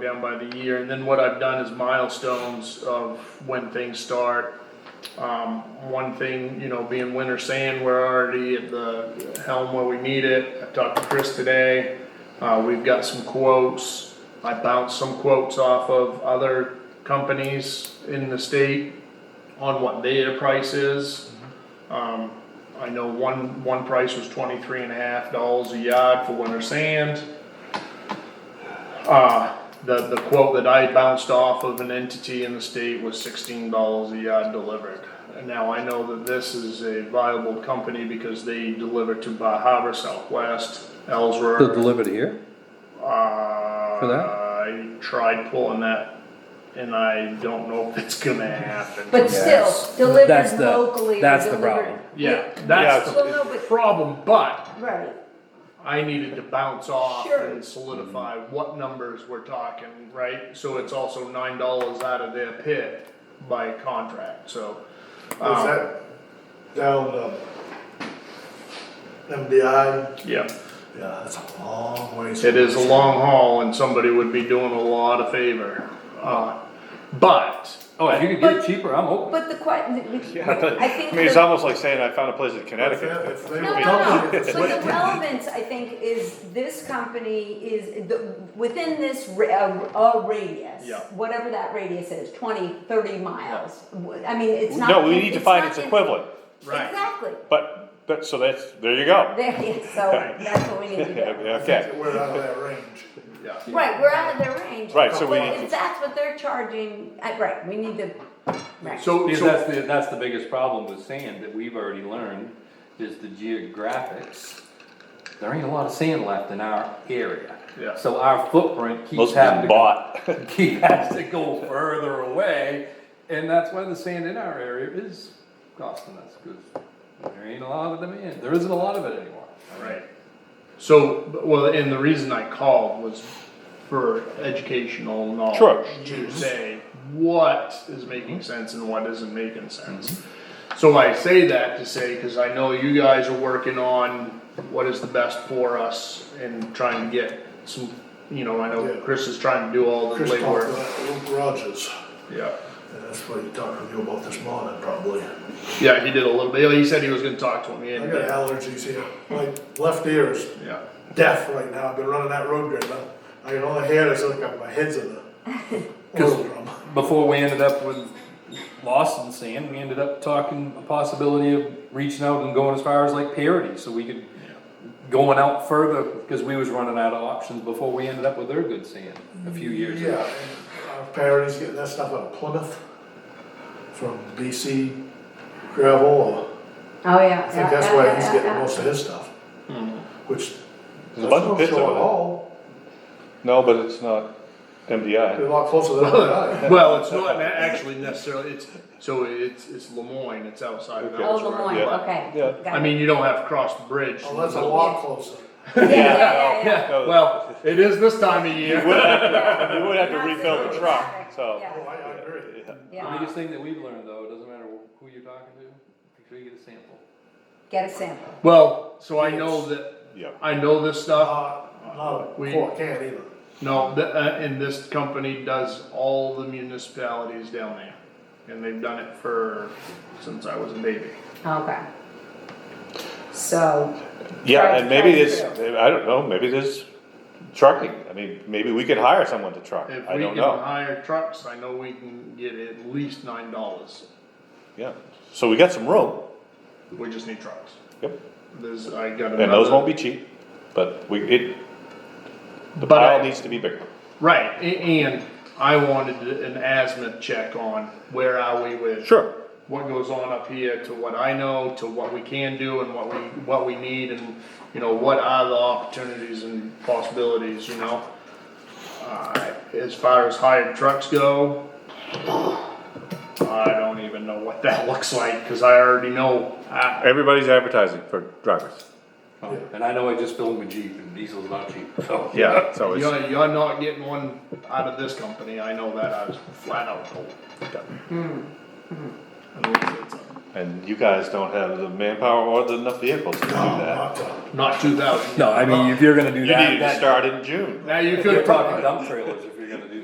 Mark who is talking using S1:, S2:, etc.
S1: down by the year, and then what I've done is milestones of when things start. Um, one thing, you know, being winter sand, we're already at the helm where we need it, I talked to Chris today, uh, we've got some quotes. I bounced some quotes off of other companies in the state on what their price is. Um, I know one, one price was twenty-three and a half dollars a yard for winter sand. Uh, the, the quote that I bounced off of an entity in the state was sixteen dollars a yard delivered. And now I know that this is a viable company because they deliver to Bar Harbor, Southwest, Ellsworth.
S2: They'll deliver it here?
S1: Uh,
S2: that?
S1: I tried pulling that, and I don't know if it's gonna happen.
S3: But still,
S2: Yes. That's
S3: delivered
S2: the-
S3: locally. or
S2: that's the
S3: delivered-
S2: problem.
S1: Yeah,
S4: Yeah,
S1: that's
S4: it's-
S3: Well, no,
S1: the
S3: but-
S1: problem, but
S3: Right,
S1: I needed to bounce off
S3: Sure.
S1: and solidify what numbers we're talking, right? So it's also nine dollars out of their pit by contract, so.
S4: Was
S1: um,
S4: that down, um, MDI?
S1: Yeah,
S4: Yeah, that's a long ways.
S1: it is a long haul, and somebody would be doing a lot of favor, uh, but.
S2: Oh, if you could get it cheaper, I'm open.
S3: but the question, I think.
S5: I mean, it's
S3: the-
S5: almost like saying I found a place in
S4: If they-
S5: Connecticut.
S4: if they
S3: No,
S4: were
S3: no, no,
S4: dumping
S3: but
S4: it, it's
S3: the
S4: wasted.
S3: relevance, I think, is this company is, the- within this ra- a a radius.
S1: Yeah.
S3: Whatever that radius is, 20, 30 miles, I mean, it's not.
S5: No, we need to find
S3: not
S5: its
S3: in-
S5: equivalent,
S1: Right.
S3: Exactly,
S5: but, but, so that's, there you go.
S3: there, yeah, so that's what we need to do.
S5: Okay,
S4: We're out of that range.
S1: Yeah.
S3: Right, we're out of their range.
S5: Right, so we
S3: But
S5: need
S3: if
S5: to-
S3: that's what they're charging, uh, right, we need to, right.
S1: So,
S2: Because
S1: so-
S2: that's the, that's the biggest problem with sand that we've already learned, is the geographics. There ain't a lot of sand left in our area.
S1: Yeah.
S2: So our footprint keeps
S5: most of
S2: having to
S5: them
S2: go,
S5: bought.
S2: keep has to go further away, and that's why the sand in our area is costing us, because there ain't a lot of demand, there isn't a lot of it anymore.
S1: Right. So, but- well, and the reason I called was for educational knowledge.
S5: Sure.
S4: Mm-hmm.
S1: To say what is making sense and what isn't making sense. So I say that to say, cause I know you guys are working on what is the best for us and trying to get some, you know, I
S4: Yeah.
S1: know Chris is trying to do all the
S4: Chris talked to
S1: legwork.
S4: Luke Rogers,
S1: Yeah.
S4: and that's what he talked to you about this morning, probably.
S1: Yeah, he did a little bit, he said he was gonna talk to me
S4: I got
S1: and,
S4: allergies here, my left ear is
S1: yeah.
S4: deaf right now, I've been running that road grid, now. I can only hear it's like my head's in the oil drum.
S2: Before we ended up with Lawson sand, we ended up talking a possibility of reaching out and going as far as like parity, so we could going out further, because we was running out of options before we ended up with their good sand a few years
S4: Yeah,
S2: ago.
S4: and our parents getting that stuff out of Plymouth from BC gravel, or,
S3: Oh, yeah.
S4: I think that's why he's getting most of his stuff. Which,
S5: There's a
S4: that's
S5: bunch of
S4: not
S5: pits
S4: sure
S5: over
S4: at
S5: there.
S4: all,
S5: No, but it's not
S4: they're
S5: MDI.
S4: a lot closer than I am.
S1: Well, it's not actually necessarily, it's, so it's, it's Lemoyne, it's outside of
S5: Okay.
S3: Oh,
S1: Ellsworth.
S3: Lemoyne,
S5: Yeah.
S3: okay.
S5: Yeah.
S3: Got
S1: I
S3: it.
S1: mean, you don't have to cross the bridge.
S4: Oh, that's a lot closer.
S3: Yeah, yeah, yeah, yeah.
S5: No,
S1: Well, it is this time of year.
S5: You would have to refill the truck, so.
S4: Oh, I, I agree.
S2: The
S3: Yeah,
S2: biggest thing that we've learned though, it doesn't matter who you're talking to, make sure you get a sample.
S3: get a sample.
S1: Well, so I know that,
S5: Yeah.
S1: I know this stuff.
S4: Not, not a
S1: We-
S4: quart can either.
S1: No, th- uh, and this company does all the municipalities down there. And they've done it for, since I was a baby.
S3: Okay. So,
S5: Yeah, and maybe
S3: Truck,
S5: this,
S3: truck,
S5: I don't know, maybe this trucking, I mean, maybe we could hire someone to truck,
S1: If
S5: I
S1: we
S5: don't
S1: can
S5: know,
S1: hire trucks, I know we can get at least nine dollars.
S5: yeah. So we got some room,
S1: We just need trucks.
S5: yep,
S1: There's, I got another.
S5: and those won't be cheap, but we, it, the
S1: But I-
S5: pile needs to be bigger.
S1: Right, a- and I wanted an asthma check on where are we with.
S5: Sure.
S1: What goes on up here to what I know, to what we can do and what we, what we need and, you know, what are the opportunities and possibilities, you know? Uh, as far as hired trucks go, I don't even know what that looks like, cause I already know, I,
S5: Everybody's advertising for drivers,
S2: And I know I just filled my Jeep and diesel's not cheap, so.
S5: yeah, so it's,
S1: you're, you're not getting one out of this company, I know that, I was flat out told. I mean, it's-
S5: and you guys don't have the manpower or the enough vehicles to do that.
S4: Not a-
S1: Not two thousand.
S2: No, I mean, if you're gonna do
S5: You
S2: that,
S5: need to
S2: that-
S5: start in June.
S1: Now you
S2: You're
S1: could
S2: talking
S1: talk,
S2: dump trailers if you're gonna do